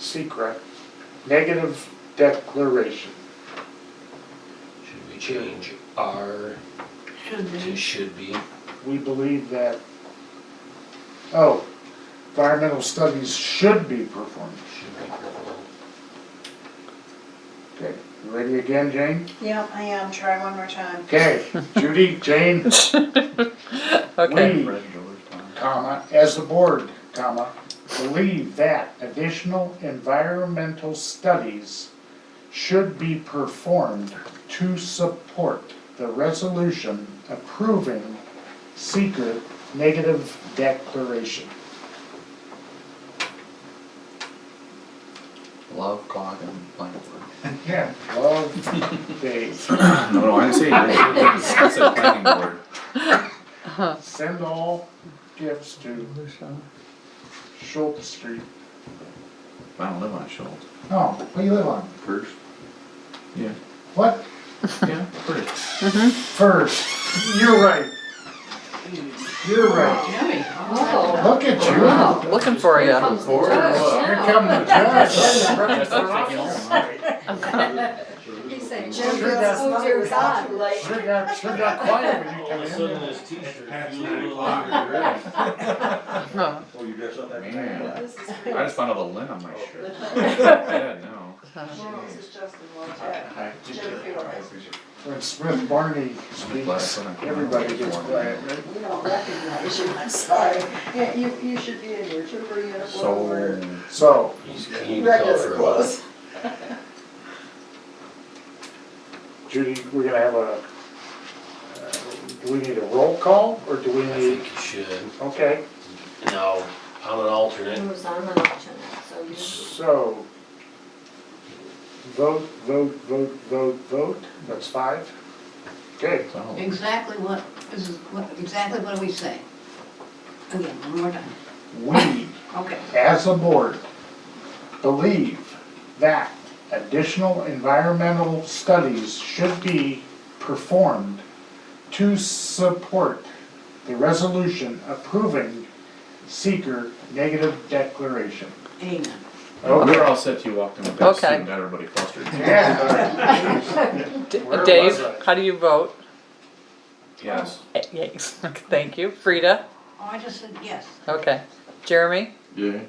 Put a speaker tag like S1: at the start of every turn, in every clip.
S1: secret, negative declaration.
S2: Should we change R
S3: Should
S2: to
S3: be.
S2: should be?
S1: We believe that, oh, environmental studies should be performed.
S2: Should be performed.
S1: Okay, you ready again, Jane?
S3: Yep, I am, try one more time.
S1: Okay, Judy, Jane,
S4: Okay,
S1: we, comma, as the board, comma, believe that additional environmental studies should be performed to support the resolution approving secret negative declaration.
S5: Love clock and blank board.
S1: Yeah, love days.
S5: No, no, I didn't say. I said planning board.
S1: Send all gifts to Schultz Street.
S5: I don't live on Schultz.
S1: Oh, what do you live on?
S5: First. Yeah.
S1: What?
S5: Yeah, first.
S1: First. You're right. You're right.
S6: Jimmy.
S1: Look at you.
S4: looking for you.
S1: Here come the judge.
S6: He said,
S1: Jim,
S6: Jimmy,
S1: that's
S6: oh dear God.
S1: Sure got, sure got quiet when you
S7: All of a
S1: come
S7: sudden,
S1: in.
S7: this t-shirt.
S8: Past
S7: you
S8: nine
S7: little-
S8: o'clock, you're ready.
S4: Huh.
S8: Oh, you dress up that
S5: Man.
S8: fast?
S3: This is
S5: I just found out a lint on my shirt. I didn't know.
S3: Well, this is Justin Wojcik. Jim Fields.
S1: When Smith Barney speaks, everybody gets quiet.
S3: We don't recognize you, I'm sorry. Yeah, You, you should be in your trooper uniform or
S5: So,
S1: So,
S2: He's clean
S3: regular
S2: color.
S3: clothes.
S1: Judy, we're gonna have a, uh, do we need a roll call or do we
S2: I
S1: need,
S2: think you should.
S1: okay,
S2: No, I'm an alternate.
S6: Who's on an alternate, so you.
S1: so. Vote, vote, vote, vote, vote, that's five. Okay,
S5: so,
S3: Exactly what, this is, what, exactly what we say. Again, one more time.
S1: we
S3: Okay.
S1: as a board, believe that additional environmental studies should be performed to support the resolution approving seeker negative declaration.
S3: Amen.
S5: we were all set till you walked in the best suit
S4: Okay.
S5: and got everybody flustered.
S1: Oh. Yeah.
S4: D-
S1: Where
S4: Dave,
S1: was I?
S4: how do you vote?
S5: Yes.
S4: Eh, Yes, thank you. Frida?
S3: Oh, I just said yes.
S4: Okay. Jeremy?
S5: Yeah.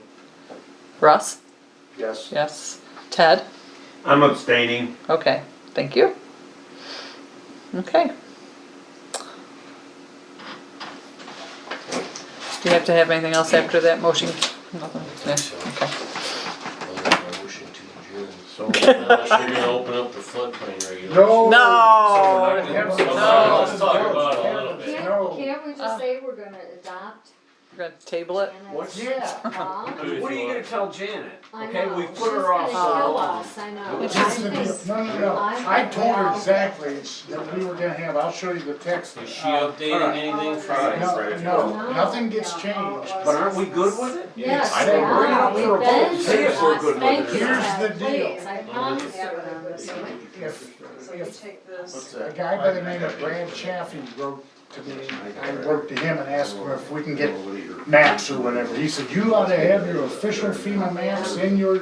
S4: Russ?
S1: Yes.
S4: Yes. Ted?
S8: I'm abstaining.
S4: Okay, thank you. Okay. Do you have to have anything else after that motion? Nothing. Yeah, okay.
S2: Motion to adjourn. Uh,
S5: So,
S2: Unless you're gonna open up the floodplain regulations.
S1: No.
S4: No!
S1: No.
S2: Let's talk about it a little bit.
S1: No.
S6: Can't, can't we
S4: Uh.
S6: just say we're gonna adopt
S4: We're gonna table it?
S6: Janet's
S1: Yeah.
S6: law?
S7: What are you gonna tell Janet?
S6: I
S7: Okay,
S6: know,
S7: we've
S6: she's
S7: put her
S6: gonna
S7: off.
S6: kill us, I know.
S1: It's
S6: I
S1: just a-
S6: think-
S1: No, no, no, I told her exactly that we were gonna have, I'll show you the text.
S2: Is she
S8: Uh,
S2: updating anything
S8: Alright.
S2: from?
S1: No, no, nothing gets changed.
S7: But aren't we good with it?
S6: Yes,
S5: I don't worry.
S6: yeah, we've been
S7: Say
S6: through
S7: if we're good
S6: this,
S7: with
S6: thank
S7: it or
S6: you,
S1: not. Here's the
S6: Ted,
S1: deal.
S6: please, I promise you.
S1: If, if
S3: take this.
S1: A guy by the name of Brad Chaffee wrote to me, I wrote to him and asked him if we can get maps or whatever. He said, you ought to have your official FEMA maps in your,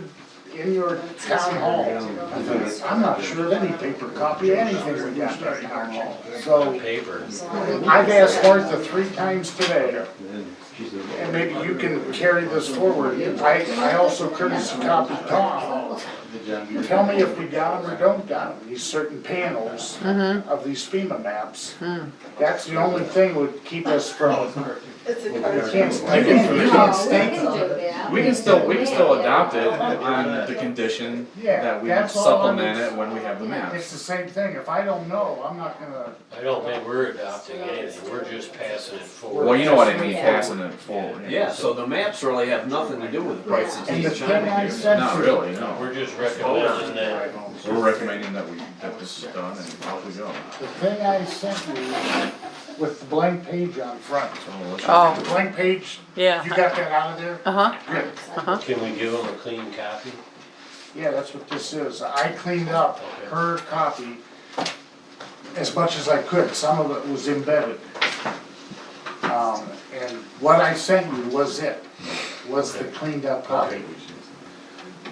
S1: in your town hall. I thought, I'm not sure of any paper copy, anything we got in our town hall. So
S2: Paper.
S1: I've asked Martha three times today, and maybe you can carry this forward. I, I also courtesy copied Tom. Tell me if we got them or don't got them, these certain panels of these FEMA maps. That's the only thing would keep us from,
S3: It's
S1: we
S3: a.
S1: can't, I think we can't state
S6: No, we can do that.
S5: we can still, we can still adopt it
S6: Yeah.
S5: on the condition
S1: Yeah,
S5: that we
S1: that's all I'm-
S5: supplement it when we have the map.
S1: It's the same thing, if I don't know, I'm not gonna,
S2: I don't think we're adopting anything, we're just passing it forward.
S5: Well, you know what I mean, passing it forward.
S7: Yeah, so the maps really have nothing to do with the prices
S1: and the
S7: he's
S1: thing
S7: trying
S1: I
S7: to
S1: said
S5: Not
S1: to-
S5: really, no.
S2: We're just recommending that.
S5: We're recommending that we, that this is done and off we go.
S1: The thing I sent you with the blank page on front,
S5: So let's-
S1: the
S4: Oh,
S1: blank page, you
S4: yeah.
S1: got that out of there?
S4: Uh-huh,
S1: Good.
S2: Can we give them a clean copy?
S1: Yeah, that's what this is. I cleaned up her copy as much as I could. Some of it was embedded. Um, and what I sent you was it, was the cleaned up copy.